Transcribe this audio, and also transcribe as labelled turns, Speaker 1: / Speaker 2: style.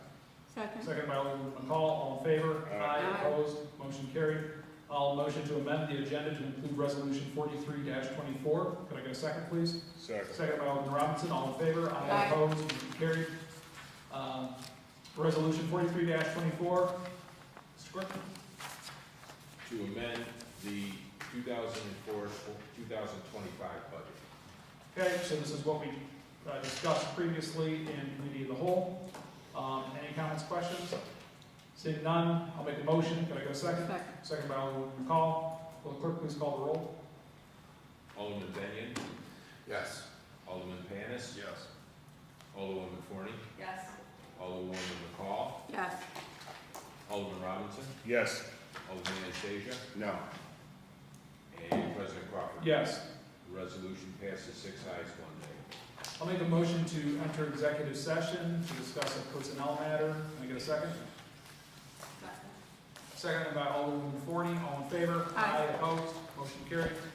Speaker 1: Second.
Speaker 2: Second by Alderman McCall, all in favor?
Speaker 3: Aye.
Speaker 2: Opposed, motion carried. I'll motion to amend the agenda to include resolution forty-three twenty-four. Could I get a second, please?
Speaker 3: Second.
Speaker 2: Second by Alderman Robinson, all in favor?
Speaker 1: Aye.
Speaker 2: Opposed, motion carried. Um, Resolution forty-three twenty-four. Mr. Clerk?
Speaker 4: to amend the 2004, 2025 budget.
Speaker 2: Okay, so this is what we uh, discussed previously in committee of the whole. Um, Any comments, questions? Seeing none, I'll make a motion. Could I get a second?
Speaker 1: Second.
Speaker 2: Second by Alderman McCall. Will the clerk please call the roll?
Speaker 4: Alderman Benyon,
Speaker 3: Yes.
Speaker 4: Alderman Panis,
Speaker 3: Yes.
Speaker 4: Alderwoman Forney,
Speaker 1: Yes.
Speaker 4: Alderwoman McCall,
Speaker 1: Yes.
Speaker 4: Alderman Robinson,
Speaker 3: Yes.
Speaker 4: Alderman Anastasia,
Speaker 3: No.
Speaker 4: and President Crawford.
Speaker 2: Yes.
Speaker 4: The Resolution passes six ayes, one nay.
Speaker 2: I'll make a motion to enter executive session to discuss a personnel matter. Can I get a second? Second by Alderman Forney. All in favor?
Speaker 1: Aye.
Speaker 2: Opposed? Motion carried.